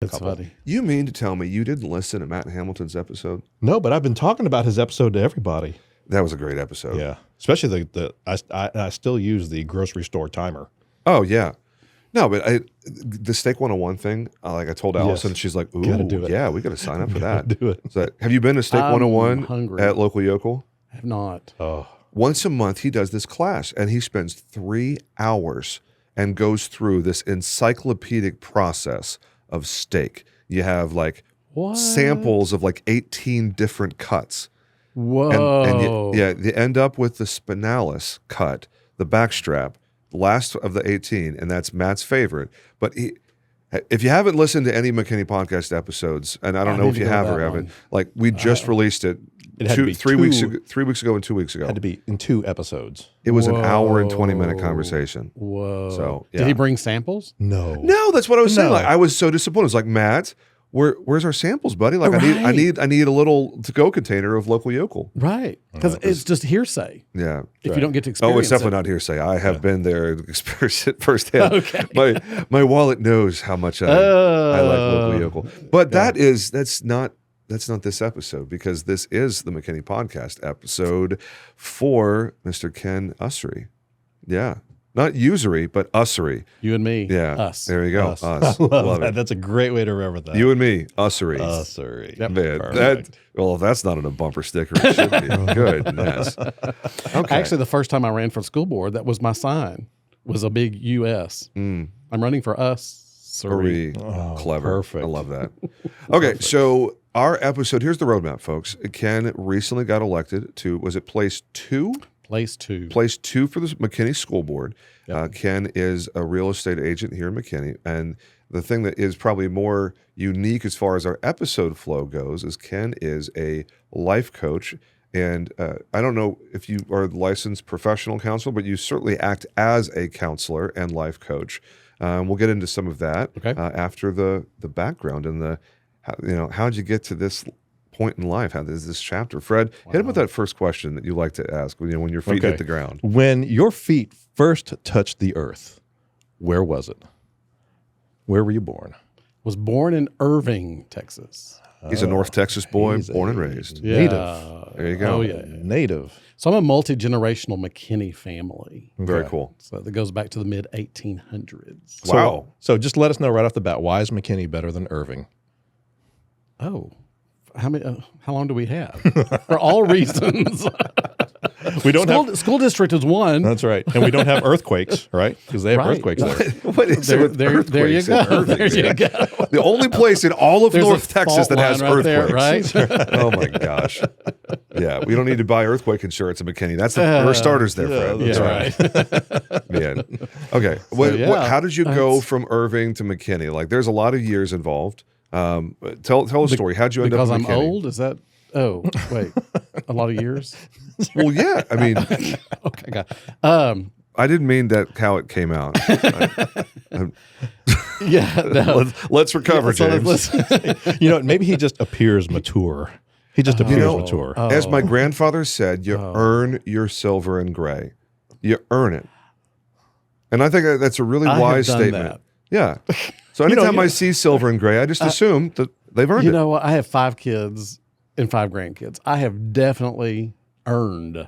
That's couple. funny. You mean to tell me you didn't listen to Matt Hamilton's episode? No, but I've been talking about his episode to everybody. That was a great episode. Yeah, especially the the I, I I still use the grocery store timer. Oh yeah. No, but I the steak 101 thing, uh, like I told Yes. Allison, she's like, "Ooh, Gotta do it. yeah, we got to sign up for Gotta that." do it. So, have you been to Steak I'm 101 Hungry. at local yokel? I have not. Oh, Once a month, he does this class, and he spends three hours and goes through this encyclopedic process of steak. You have like What? samples of like 18 different cuts. and, Whoa. and you- yeah, they end up with the spinalis cut, the backstrap, last of the 18, and that's Matt's favorite. But he, if you haven't listened to any McKinney podcast episodes, and I don't I know need if to you go to have that or haven't, one. like we just released it, It had to two, be three weeks two- ago, three weeks ago and two weeks ago. had to be in two episodes. It was an hour and 20 minute Whoa. conversation. Whoa. So, Did yeah. he bring samples? No, No, that's what I was saying. No. Like I was so disappointed. It's like Matt, where where's our samples, buddy? Like I need I Right. need I need a little to go container of local yokel. Right. Because it's just hearsay Yeah. if Right. you don't get to experience Oh, it's definitely it. not hearsay. I have been there and experienced it firsthand. Okay. My my wallet knows how much I, I like local Oh. yokel. But that is that's not that's not this episode because this is the McKinney podcast episode for Mr. Ken Usery. Yeah. Not usury, but usury. You and me. Yeah. Us. There you go. Us. Us. I love, Love that. it. That's a great way to remember that. You and me, usury. uh, sorry. Yep. Man, that, Perfect. well, if that's not on a bumper sticker, it should be. Goodness. Okay. Actually, the first time I ran for school board, that was my sign, was a big U.S. Mm, I'm running for us. hurry. Oh, Clever. Perfect. I love that. Okay, so our episode here's the roadmap, folks. Ken recently got elected to was it place two? Place two. Place two for the McKinney School Board. Uh, Ken is a real estate agent here in McKinney, and the thing that is probably more unique as far as our episode flow goes is Ken is a life coach. And uh, I don't know if you are a licensed professional counselor, but you certainly act as a counselor and life coach. Um, we'll get into some of that Okay. uh, after the the background and the how, you know how'd you get to this point in life? How does this chapter, Fred? Hit him with that first question that you like to ask when you know, when your feet Okay. hit the ground. When your feet first touched the earth, where was it? Where were you born? Was born in Irving, Texas. He's a North Texas boy, He's a born and raised. Native. There you go. Oh, yeah. Native. So I'm a multi generational McKinney family. Very Okay. cool. So that goes back to the mid 1800s. So- Wow. So just let us know right off the bat why is McKinney better than Irving? Oh, how many? Uh, how long do we have? For all reasons. We don't school, have. school district is one. That's right. And we don't have earthquakes, right? Because they have Right. earthquakes there. What is There, it with there, there you earthquakes in go. Irving? There you go. The only place in all of There's a North Texas fault that has line right there, earthquakes. right? oh my gosh. Yeah, we don't need to buy earthquake insurance in McKinney. That's the, we're starters there, Fred. yeah, That's Uh, yeah, right. right. Man. Okay. What- what- yeah, how did you go from Irving to McKinney? Like, there's a lot of years involved. Um, tell tell a story. How'd you end because up? I'm in McKinney? old. Is that? Oh, wait, a lot of years. Well, yeah. I mean, Okay, got. Um, I didn't mean that how it came out. yeah. No. let's, let's recover, So James. let's- You know, maybe he just appears mature. He just appears Uh-huh. know- uh, mature. oh. As my grandfather said, you earn your silver and gray. You earn it. And I think that- that's a really I have wise done statement. Yeah. So anytime I see silver and gray, I just assume that they've earned you it. know what? I have five kids and five grandkids. I have definitely earned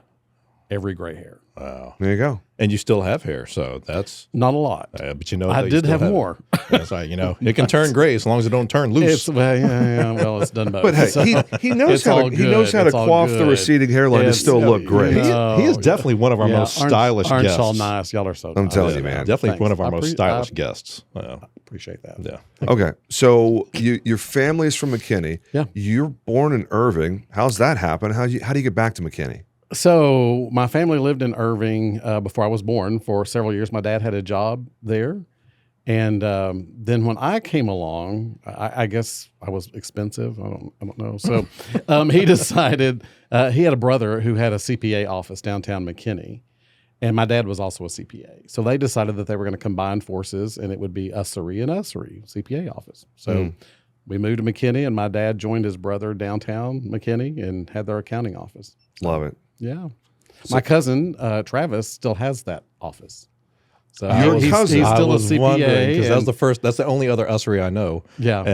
every gray hair. Wow. there you go. And you still have hair, so that's. Not a lot. Uh, but you know, that I you did still have it. more. That's right. You know, it can turn gray as long as it don't turn loose. It's well, yeah, yeah, well, it's done both. But hey, So- he, he knows it's how all to, he knows good. how to It's all quaff the good. receding hairline to It's- still look great. He, No. he is definitely one of our Yeah, most aren't- stylish aren't guests. y'all nice? Y'all are so. I'm nice. telling you, Yeah, man. Definitely Thanks. one of our I most pre- stylish I- guests. Yeah. Appreciate that. yeah. Okay. So you, your family's from McKinney. Yeah. You're born in Irving. How's that happen? How you how do you get back to McKinney? So my family lived in Irving uh, before I was born for several years. My dad had a job there, and um, then when I came along, I, I guess I was expensive. I don't, I don't know. So um, he decided uh, he had a brother who had a CPA office downtown McKinney, and my dad was also a CPA. So they decided that they were going to combine forces, and it would be Usury and Usury CPA office. So. Mm. We moved to McKinney, and my dad joined his brother downtown McKinney and had their accounting office. Love it. Yeah. My cousin uh, Travis still has that office. So Your he's, cousin? he's I still a was wondering, CPA. that was and- the first. That's the only other usery I know. yeah.